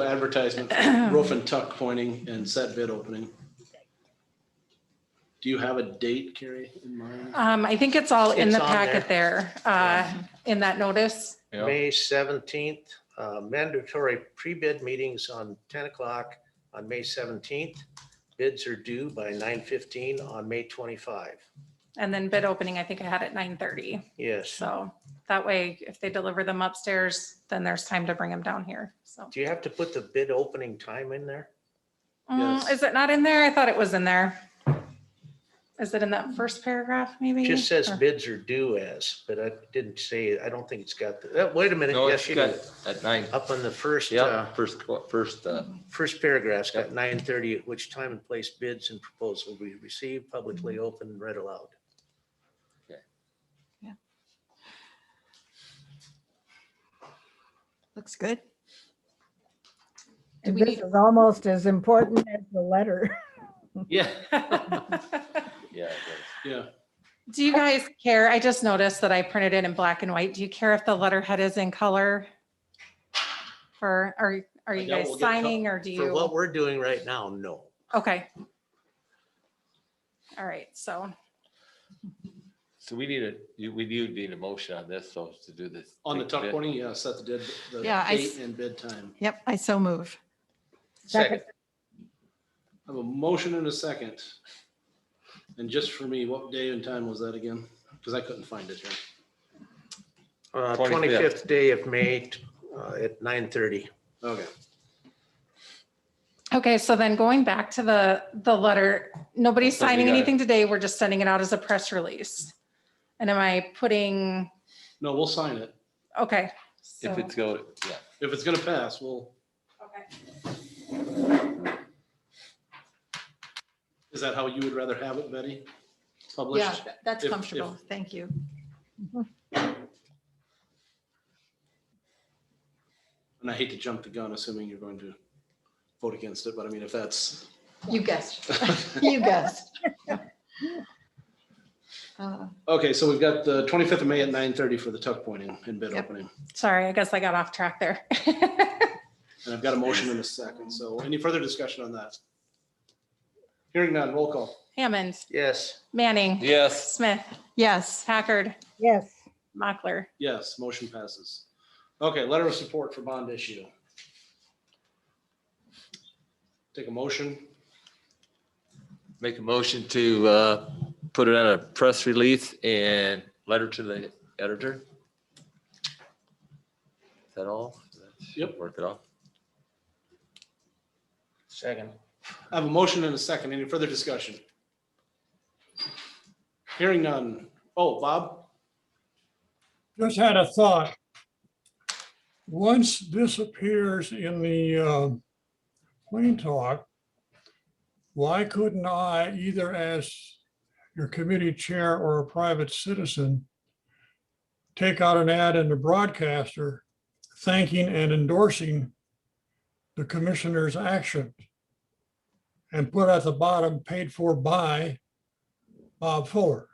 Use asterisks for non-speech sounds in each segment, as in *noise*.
*coughs* advertisement, *clears throat* for Um, roof and tuck pointing and set bid opening. Do you have a date, Carrie, in mind? Um, I think it's all in It's the on packet there, uh, in that notice. Yeah, May 17th, uh, mandatory pre-bid meetings on 10 o'clock on May 17th. Bids are due by 9:15 on May 25. And then bid opening, I think I had at nine thirty. Yes. So that way, if they deliver them upstairs, then there's time to bring them down here. So. Do you have to put the bid opening time in there? Mm, Yes. Is it not in there? I thought it was in there. Is it in that first paragraph maybe? It just says Or- bids are due as, but I didn't say, I don't think it's got, the- uh, wait a minute, no, yes, it's you got do. at nine, Up on the first, uh, yeah, first, qu- first, *laughs* uh, first paragraph's got Yep. 9:30, at which time and place bids and proposal will be received, publicly Mm-hmm. open, and read aloud. Looks good. And we This need- is almost as important as the letter. yeah. Yeah, it Yeah, *laughs* Do you guys care? I just noticed that I printed it in black and white. Do you care if the letterhead is in color? For, are, are you Yeah, guys we'll get co- signing or do you? For what we're doing right now, no. Okay. All right, so So we need a, you- we do need a motion on this, so to do this. on the big tuck bid. pointing, yeah, set the date, the Yeah, I date s- and bid time. Yep, I so move. Second. I have a motion and a second. And just for me, what day and time was that again? Because I couldn't find it here. Uh, 25th. 25th day of May t- uh, at 9:30. Okay, Okay, so then going back to the, the letter, nobody's So we signing got it. anything today. We're just sending it out as a press release. And am I putting, no, we'll sign it. okay. so- If it's go, yeah, If it's gonna pass, we'll, Okay. is that how you would rather have it, Betty? Published? Yeah, tha- that's if- comfortable. Thank you. And I hate to jump the gun, assuming you're going to vote against it, but I mean, if *laughs* that's, *laughs* You guessed. You guessed. *laughs* Uh, okay, so we've got the 25th of May at 9:30 for the tuck pointing and bid Yep. opening. Sorry, I guess I got off track there. *laughs* And I've got a motion in a second, so any further discussion on that? Hearing none, roll call. Hammond, Yes. Manning, yes, Smith, Yes, Packard, Yes, Mockler. Yes, motion passes. Okay, letter of support for bond issue. Take a motion. make a motion to, uh, put it on a press release and letter to the editor. Is that all? Yep. Work it off. Second. I have a motion and a second. Any further discussion? Hearing none. Oh, Bob? just had a thought. Once this appears in the uh, plain talk, why couldn't I, either as your committee chair or a private citizen, take out an ad in the broadcaster thanking and endorsing the commissioner's action? And put at the bottom, paid for by Bob Fuller.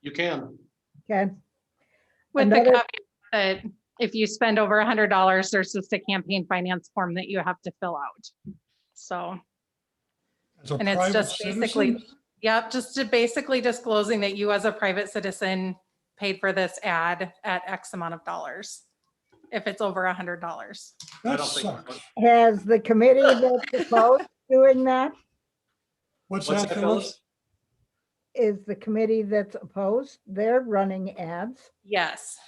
You can. okay. With the Another- caveat that if you spend over a hundred dollars, there's just a campaign finance form that you have to fill out. So, As a And it's private just basically- citizen? yep, just to basically disclosing that you as a private citizen paid for this ad at X amount of dollars. If it's over a hundred dollars. I That don't think. sucks. Has the committee that proposed doing that, What's What's that, that, fellas? fellas? is the committee that's opposed, they're running ads? Yes,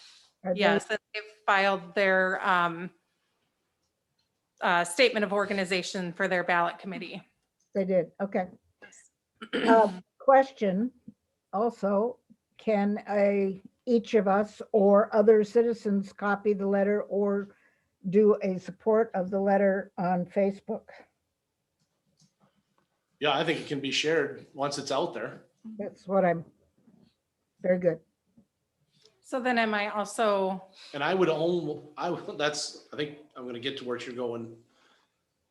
Are they- yes, and they filed their um uh, statement of organization for their ballot committee. They did, okay. Uh, Question also, can a, each of us or other citizens copy the letter or do a support of the letter on Facebook? Yeah, I think it can be shared once it's out there. That's what I'm, very good. So then am I also, And I would own, I, would- that's, I think I'm gonna get to where you're going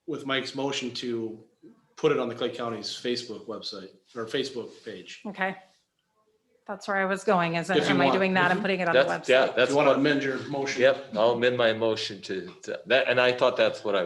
with Mike's motion to put it on the Clay County's Facebook website or Facebook page. okay, That's where I was going, is If you am I want. Mm-hmm. doing that and putting it on the That's, yeah, website? If that's you want to what, amend your motion. yep, I'll amend my motion to, to- that, and I thought that's what I was.